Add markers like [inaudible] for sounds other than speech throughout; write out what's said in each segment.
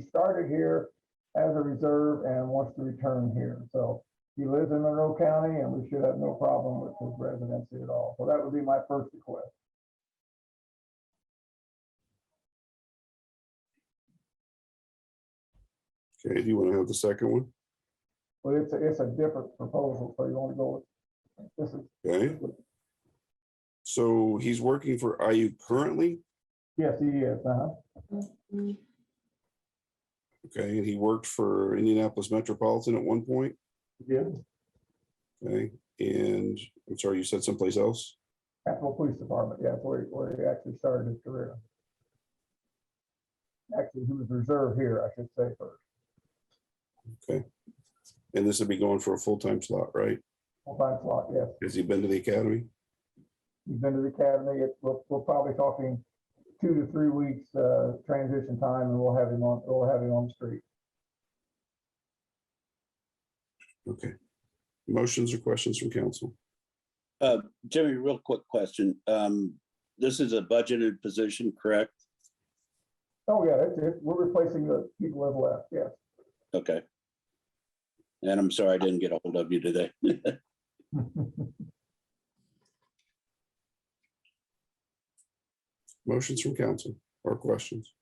he started here as a reserve and wants to return here. So he lives in Monroe County and we should have no problem with his residency at all. So that would be my first request. Okay, do you want to have the second one? But it's, a- it's a different proposal, so you want to go with, this is, Okay. So he's working for IU currently, yes, he is, uh-huh. okay, and he worked for Indianapolis Metropolitan at one point, Yeah. okay? And I'm sorry, you said someplace else? Capital Police Department, yeah, that's where, he- where he actually started his career. Actually, he was reserve here, I should say first, And this would be going for a full-time slot, right? full-time slot, yes. Has he been to the academy? He's been to the academy, it, we're, we're probably talking two to three weeks, uh, transition time, and we'll have him on, we'll have him on the street. Okay. Motions or questions from council? Uh, Jimmy, real quick question. Um, this is a budgeted position, correct? Oh, yeah, it's, it, we're replacing the people that left, yes. Okay. And I'm sorry I didn't get a hold of you today. [laughs] Motions from council or questions?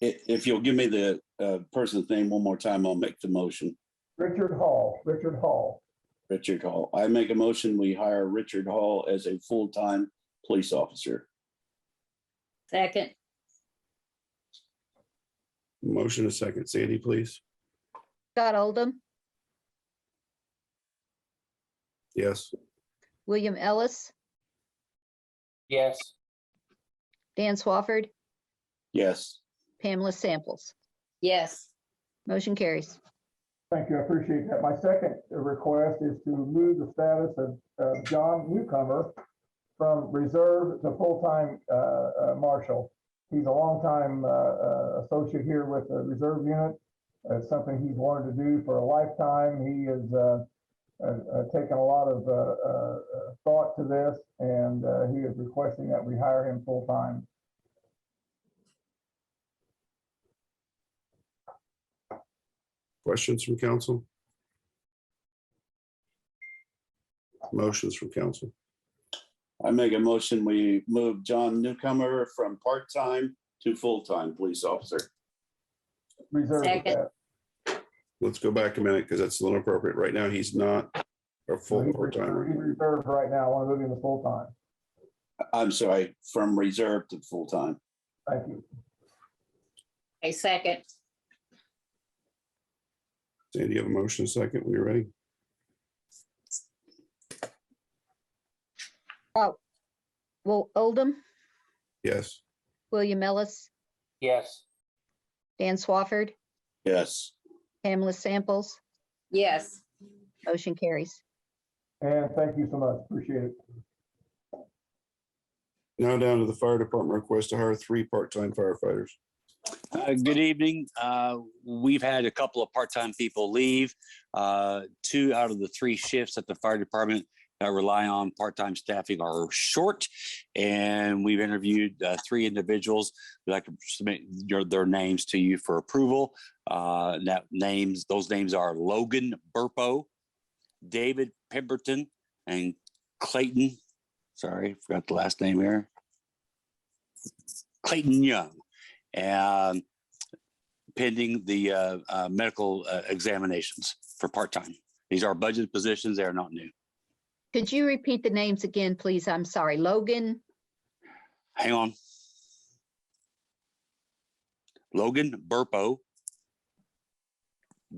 If, if you'll give me the, uh, person's name one more time, I'll make the motion. Richard Hall, Richard Hall, Richard Hall. I make a motion, we hire Richard Hall as a full-time police officer. Second, Motion a second. Sandy, please. Scott Oldham, Yes. William Ellis, yes, Dan Swafford, Yes, Pamela Samples. yes, Motion carries. thank you, I appreciate that. My second request is to move the status of, of John Newcomer from reserve to full-time, uh, uh, marshal. He's a longtime, uh, uh, associate here with the reserve unit. It's something he's wanted to do for a lifetime. He is, uh, uh, uh, taken a lot of, uh, uh, uh, thought to this, and, uh, he is requesting that we hire him full-time. Questions from council? Motions from council. I make a motion, we move John Newcomer from part-time to full-time police officer. Reserve Second. status. Let's go back a minute because that's a little inappropriate. Right now, he's not a full He's part-timer. reserved- he's reserved right now, I want to move him to full-time. I'm sorry, from reserve to full-time. Thank you. a second, Sandy, you have a motion a second. When you're ready. Well, Oldham, Yes. William Ellis, yes, Dan Swafford, Yes, Pamela Samples. yes, Motion carries. And thank you so much, appreciate it. Now down to the fire department request to hire three part-time firefighters. Uh, Good evening. Uh, We've had a couple of part-time people leave. Uh, Two out of the three shifts at the fire department that rely on part-time staffing are short. And we've interviewed uh, three individuals. We'd like to submit your- their names to you for approval. Uh, and That names, those names are Logan Burpo, David Pemberton, and Clayton, sorry, forgot the last name here. Clayton Young and pending the uh, uh, medical uh, examinations for part-time. These are budget positions. They are not new. Could you repeat the names again, please? I'm sorry. Logan, Hang on. Logan Burpo,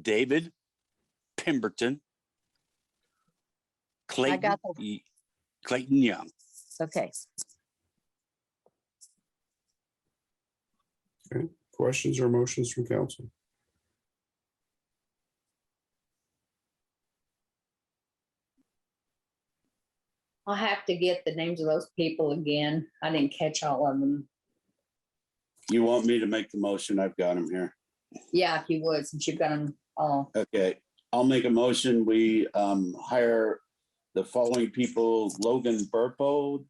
David Pemberton, Clayton, got that. Ye- Clayton Young. okay. Questions or motions from council? I'll have to get the names of those people again. I didn't catch all of them. you want me to make the motion? I've got him here. Yeah, if you would, since you've got them all. Okay, I'll make a motion. We um hire the following people, Logan Burpo,